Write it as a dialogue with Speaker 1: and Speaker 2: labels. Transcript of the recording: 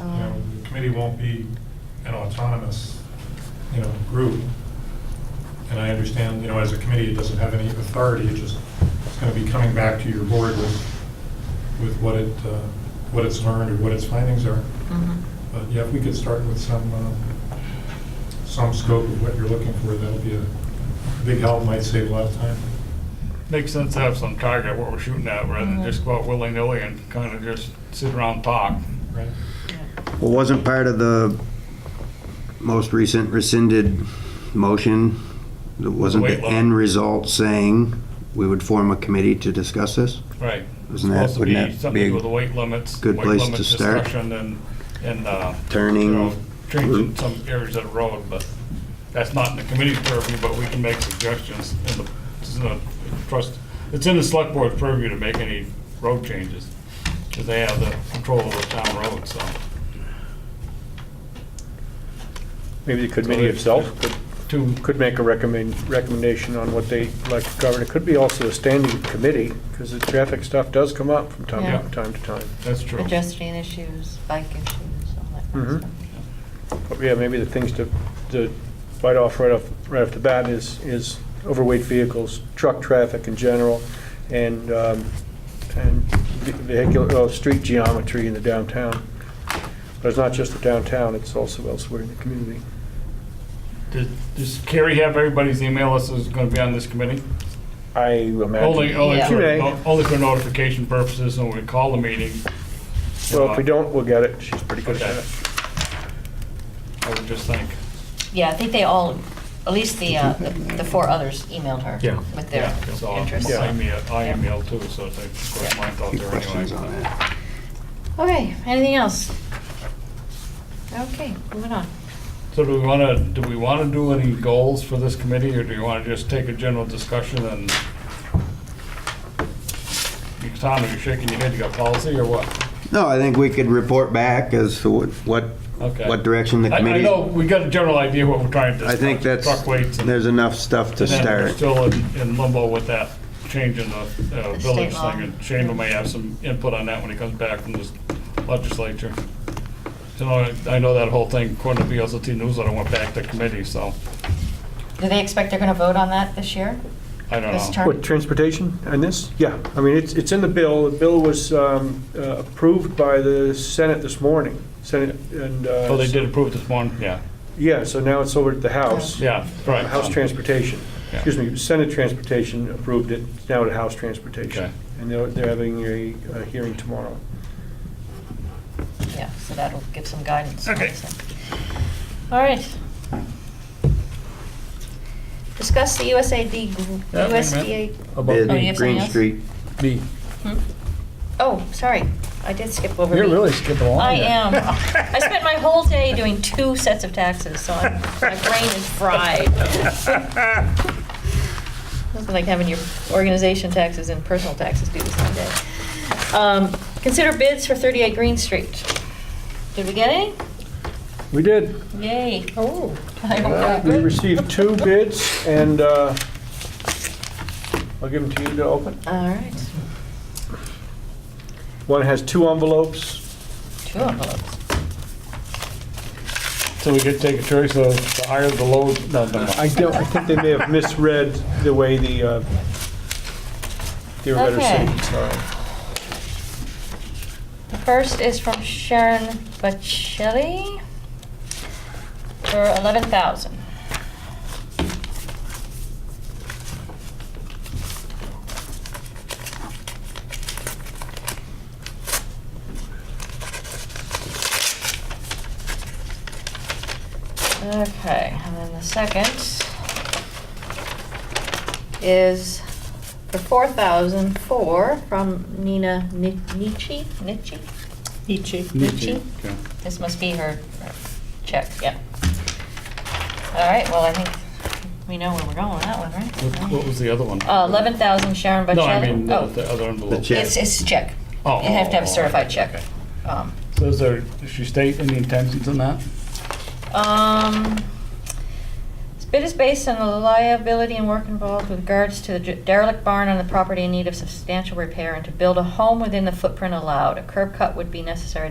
Speaker 1: Um,
Speaker 2: committee won't be an autonomous, you know, group. And I understand, you know, as a committee, it doesn't have any authority, it just, it's gonna be coming back to your board with, with what it, uh, what it's learned or what its findings are.
Speaker 1: Mhm.
Speaker 3: Mm-hmm.
Speaker 2: But yeah, if we could start with some, uh, some scope of what you're looking for, that'll be a big help, might save a lot of time.
Speaker 3: Makes sense to have some target what we're shooting at rather than just go out willy-nilly and kind of just sit around and talk.
Speaker 2: Right?
Speaker 4: Well, wasn't part of the most recent rescinded motion, wasn't
Speaker 3: Weight
Speaker 4: the
Speaker 3: loss.
Speaker 4: end result saying we would form a committee to discuss this?
Speaker 3: Right.
Speaker 4: Isn't that-
Speaker 3: Supposed to
Speaker 4: wouldn't
Speaker 3: be
Speaker 4: that be
Speaker 3: something
Speaker 4: a
Speaker 3: with the weight limits.
Speaker 4: good
Speaker 3: weight
Speaker 4: place
Speaker 3: limit
Speaker 4: to start?
Speaker 3: discussion And, and, uh.
Speaker 4: Turning
Speaker 3: you know, Changing
Speaker 4: route.
Speaker 3: some areas of the road, but that's not in the committee's purview, but we can make suggestions in the, it's in the trust, it's in the select board purview to make any road changes. Cause they have the control of the town road, so.
Speaker 5: Maybe the committee itself could,
Speaker 3: Two,
Speaker 5: could make a recommend, recommendation on what they'd like to cover. And it could be also a standing committee, because the traffic stuff does come up from time,
Speaker 1: Yeah.
Speaker 5: from time to time.
Speaker 3: that's true.
Speaker 1: Pedestrian issues, bike issues, all that kind of
Speaker 5: Mhm.
Speaker 1: stuff.
Speaker 5: But yeah, maybe the things to, to bite off right off, right off the bat is, is overweight vehicles, truck traffic in general, and, um, and vehicular, uh, street geometry in the downtown. But it's not just the downtown, it's also elsewhere in the community.
Speaker 3: Does- Does Carrie have everybody's email list that's gonna be on this committee?
Speaker 5: I imagine.
Speaker 3: Only, only
Speaker 1: Yeah.
Speaker 3: for,
Speaker 5: Today.
Speaker 3: no- only for notification purposes, and we call the meeting. you
Speaker 5: Well,
Speaker 3: know,
Speaker 5: if we don't, we'll get it. She's pretty good at
Speaker 3: Okay.
Speaker 5: it.
Speaker 3: I would just think,
Speaker 1: Yeah, I think they all, at least the, uh, the the four others emailed her
Speaker 6: Yeah.
Speaker 1: with their
Speaker 3: yeah, so I
Speaker 1: interests.
Speaker 5: Yeah.
Speaker 3: email, I email too, so they put mine out
Speaker 4: Any
Speaker 3: there
Speaker 4: questions on
Speaker 3: anyway.
Speaker 4: that?
Speaker 1: Okay, anything else? Okay, moving on.
Speaker 3: So do we wanna, do we wanna do any goals for this committee, or do you wanna just take a general discussion and? You- Tom, are you shaking your head, you got policy or what?
Speaker 4: No, I think we could report back as to what, what
Speaker 3: Okay.
Speaker 4: what direction the
Speaker 3: I, I
Speaker 4: committee.
Speaker 3: know, we got a general idea what we're trying to
Speaker 4: I
Speaker 3: discuss.
Speaker 4: think that's,
Speaker 3: Truck weights and.
Speaker 4: there's enough stuff to
Speaker 3: And then we're
Speaker 4: start.
Speaker 3: still in- in limbo with that change in the uh,
Speaker 1: The state
Speaker 3: village
Speaker 1: law.
Speaker 3: thing, and Shane may have some input on that when he comes back from this legislature. You know, I- I know that whole thing, according to VLCT newsletter, went back to committee, so
Speaker 1: Do they expect they're going to vote on that this year?
Speaker 3: I don't
Speaker 1: This
Speaker 3: know.
Speaker 1: term?
Speaker 5: What, transportation and this? Yeah, I mean, it's, it's in the bill. The bill was um, uh, approved by the Senate this morning. Senate and. uh,
Speaker 3: So Oh, they did approve this morning, yeah,
Speaker 5: Yeah, so now it's over at the House. Uh,
Speaker 3: yeah, right.
Speaker 5: House Transportation,
Speaker 3: Yeah.
Speaker 5: excuse me, Senate Transportation approved it, It's now at House Transportation.
Speaker 3: Okay.
Speaker 5: And they're, they're having a, a hearing tomorrow.
Speaker 1: Yeah, so that'll give some guidance.
Speaker 3: Okay.
Speaker 1: All right. Discuss the USAID, gr-
Speaker 3: Yeah, wait a
Speaker 1: USDA,
Speaker 3: minute.
Speaker 6: About
Speaker 1: Oh, you
Speaker 4: Bid,
Speaker 1: have something
Speaker 4: Green
Speaker 1: else?
Speaker 4: Street.
Speaker 6: the,
Speaker 1: Hmm? oh, sorry, I did skip over.
Speaker 6: you're
Speaker 1: B.
Speaker 6: really skipping along.
Speaker 1: I
Speaker 6: here.
Speaker 1: am. I spent my whole day doing two sets of taxes, so I'm- my brain is fried. Nothing like having your organization taxes and personal taxes due the same day. Um, Consider bids for 38 Green Street. Did we get any?
Speaker 5: We did.
Speaker 1: Yay. Oh.
Speaker 5: We received two bids, and uh, I'll give them to you to open.
Speaker 1: All right,
Speaker 5: One has two envelopes,
Speaker 1: two envelopes.
Speaker 3: So we could take a choice of the higher, the lower, no, no, no.
Speaker 5: I don't, I think they may have misread the way the, uh, they were better
Speaker 1: Okay.
Speaker 5: saying, sorry.
Speaker 1: The first is from Sharon Bacelli for 11,000. Okay, and then the second is for four thousand four from Nina Ni- Nietzsche, Nietzsche? Nietzsche. Nietzsche.
Speaker 3: Okay.
Speaker 1: This must be her check, yeah. All right, well, I think we know where we're going with that one,
Speaker 3: What-
Speaker 1: right?
Speaker 3: What was the other one?
Speaker 1: Uh, eleven thousand Sharon Bocelli.
Speaker 3: No, I mean, the
Speaker 1: Oh,
Speaker 3: the other envelope.
Speaker 4: The check.
Speaker 1: It's, it's a check.
Speaker 3: Oh,
Speaker 1: You have to have
Speaker 3: oh,
Speaker 1: a
Speaker 3: oh,
Speaker 1: certified
Speaker 3: okay,
Speaker 1: check.
Speaker 3: okay.
Speaker 1: Um,
Speaker 3: So is there, does she state any intentions on that?
Speaker 1: Um, this bid is based on the liability and work involved with regards to the derelict barn on the property in need of substantial repair and to build a home within the footprint allowed. A curb cut would be necessary to